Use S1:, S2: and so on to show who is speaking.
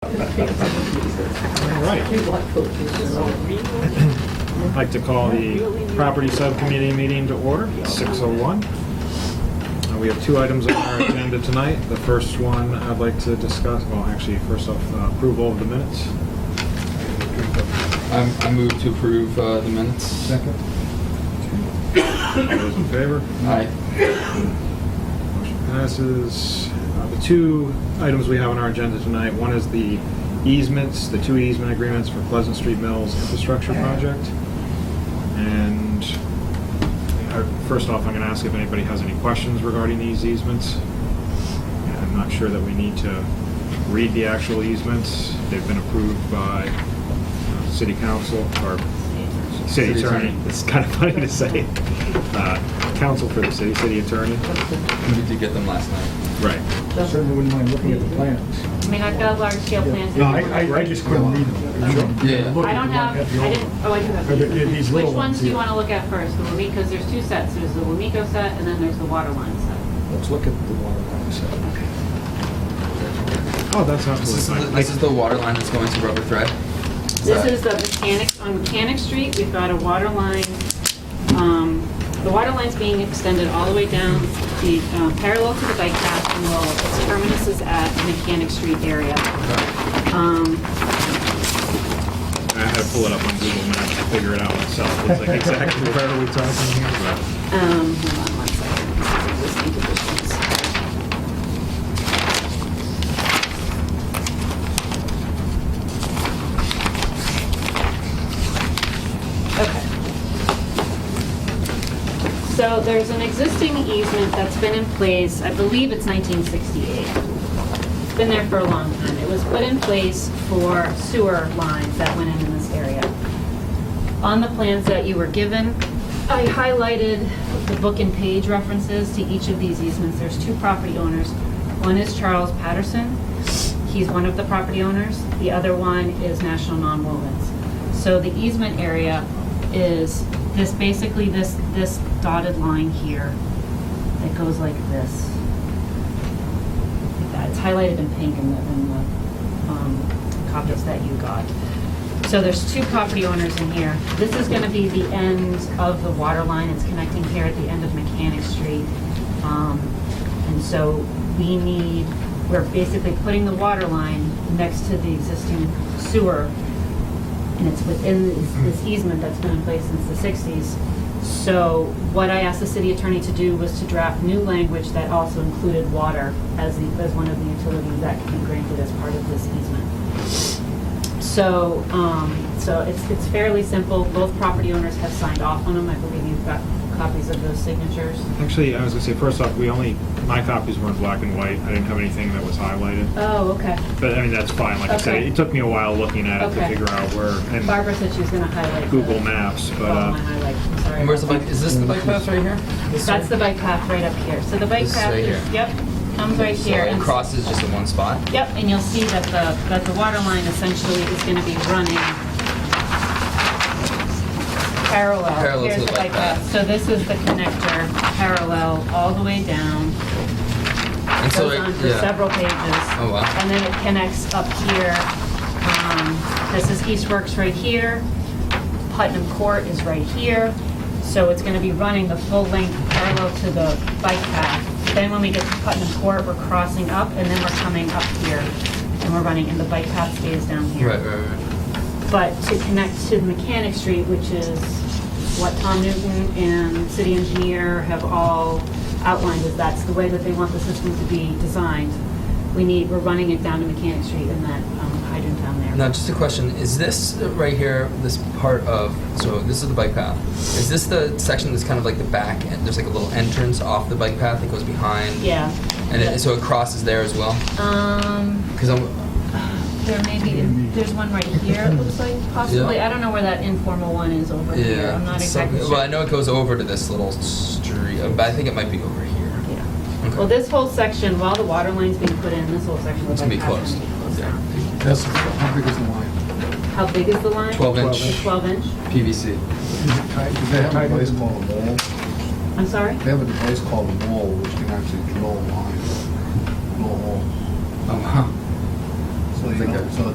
S1: All right. I'd like to call the property subcommittee meeting to order, 6:01. Uh, We have two items on our agenda tonight. The first one I'd like to discuss, well, actually, first off, uh, approval of the minutes.
S2: I'm- I move to approve uh, the minutes. Second.
S1: All those in favor?
S2: Aye.
S1: Motion passes. Uh, The two items we have on our agenda tonight, one is the easements, the two easement agreements for Pleasant Street Mills Infrastructure Project. And uh, first off, I'm going to ask if anybody has any questions regarding these easements. I'm not sure that we need to read the actual easements. They've been approved by uh, city council or city
S2: City attorney.
S1: attorney. It's kind of funny to say. Uh, Council for the city, city attorney.
S2: We did get them last night.
S1: Right.
S3: Certainly wouldn't mind looking at the plans.
S4: I mean, I've got large scale plans.
S3: No, I, I- I just couldn't read them.
S2: Yeah.
S3: Look at
S4: I
S3: the one
S4: don't have,
S3: at the
S4: I
S3: old
S4: didn't,
S3: one.
S4: oh, I do have.
S3: But there- these
S4: Which
S3: little ones
S4: ones do you
S3: here.
S4: want to look at first? The Wamiko, because there's two sets. There's the Wamiko set and then there's the Waterline set.
S3: Let's look at the water line side.
S1: Oh, that's
S2: This is, the-
S1: absolutely fine.
S2: this is the water line that's going to rubber thread.
S4: This is the Mechanic, on Mechanic Street, we've got a water line. um, The water line's being extended all the way down the, uh, parallel to the bike path and will, its terminus is at Mechanic Street area. Um,
S1: I had to pull it up on Google Maps to figure it out myself. It's like exactly where are we talking here about?
S4: Um, hold on one second. This is existing conditions. Okay. So there's an existing easement that's been in place, I believe it's 1968. It's been there for a long time. It was put in place for sewer lines that went in in this area on the plans that you were given, I highlighted the book and page references to each of these easements. There's two property owners. One is Charles Patterson. He's one of the property owners. The other one is National Nonwovens. So the easement area is this, basically this, this dotted line here that goes like this. Like that. It's highlighted in pink in the, in the um, copies that you got. So there's two property owners in here. This is going to be the end of the water line. It's connecting here at the end of Mechanic Street. Um, And so we need, we're basically putting the water line next to the existing sewer. And it's within this- this easement that's been in place since the 60s. So what I asked the city attorney to do was to draft new language that also included water as the, as one of the utilities that can be granted as part of this easement. So, um, so it's, it's fairly simple. Both property owners have signed off on them. I believe you've got copies of those signatures.
S1: Actually, I was gonna say, first off, we only, my copies were in black and white. I didn't have anything that was highlighted.
S2: Uh,
S4: Oh, okay.
S1: But I mean, that's fine. Like I said,
S4: Okay.
S1: it took me a while looking at it to
S4: Okay.
S1: figure out where, and
S4: Barbara said she was gonna highlight. the-
S1: Google Maps, but,
S4: Oh, my
S1: uh,
S4: highlight, I'm sorry.
S2: And where's the bike? Is this the bike path right here? This
S4: That's
S2: one?
S4: the bike path right up here. So the bike
S2: This is
S4: path
S2: right
S4: is,
S2: here.
S4: yep, comes right
S2: So
S4: here.
S2: it
S4: and-
S2: crosses just in one spot.
S4: Yep, and you'll see that the, that the water line essentially is gonna be running parallel.
S2: Parallel to
S4: Here's
S2: the bike path.
S4: So this is the connector, parallel, all the way down.
S2: And so
S4: goes
S2: it,
S4: on for
S2: yeah.
S4: several pages.
S2: Oh, wow.
S4: And then it connects up here. Um, This is Eastworks right here. Putnam Court is right here. So it's going to be running the full length parallel to the bike path. Then when we get to Putnam Court, we're crossing up and then we're coming up here. And we're running, and the bike path stays down here
S2: Right, right, right.
S4: but to connect to the Mechanic Street, which is what Tom Newton and city engineer have all outlined, is that's the way that they want the system to be designed. We need, we're running it down to Mechanic Street and that um, hydrant down there.
S2: Now, just a question. Is this right here, this part of, so this is the bike path. Is this the section that's kind of like the back, and there's like a little entrance off the bike path that goes behind?
S4: Yeah.
S2: And it, so it crosses there as well?
S4: Um,
S2: Because I'm,
S4: there may be, there's one right here, it looks like, possibly. I don't know where that informal one is over here.
S2: Yeah.
S4: I'm not
S2: some-
S4: exactly sure.
S2: Well, I know it goes over to this little street, uh, but I think it might be over here.
S4: Yeah.
S2: Okay.
S4: Well, this whole section, while the water line's being put in, this whole section of
S2: It's
S4: the
S2: gonna be
S4: bike path is
S2: closed.
S4: going to be closed
S2: Yeah.
S4: down.
S3: That's, how big is the line?
S4: How big is the line?
S2: 12 inch
S4: 12 inch?
S2: PVC.
S3: Is it tight? Is
S5: They
S3: that
S5: have a
S3: tight?
S5: device called a wall.
S4: I'm sorry?
S5: They have a device called a wall, which can actually drill a line, drill a hole.
S2: Oh, wow.
S5: So
S3: I think that's-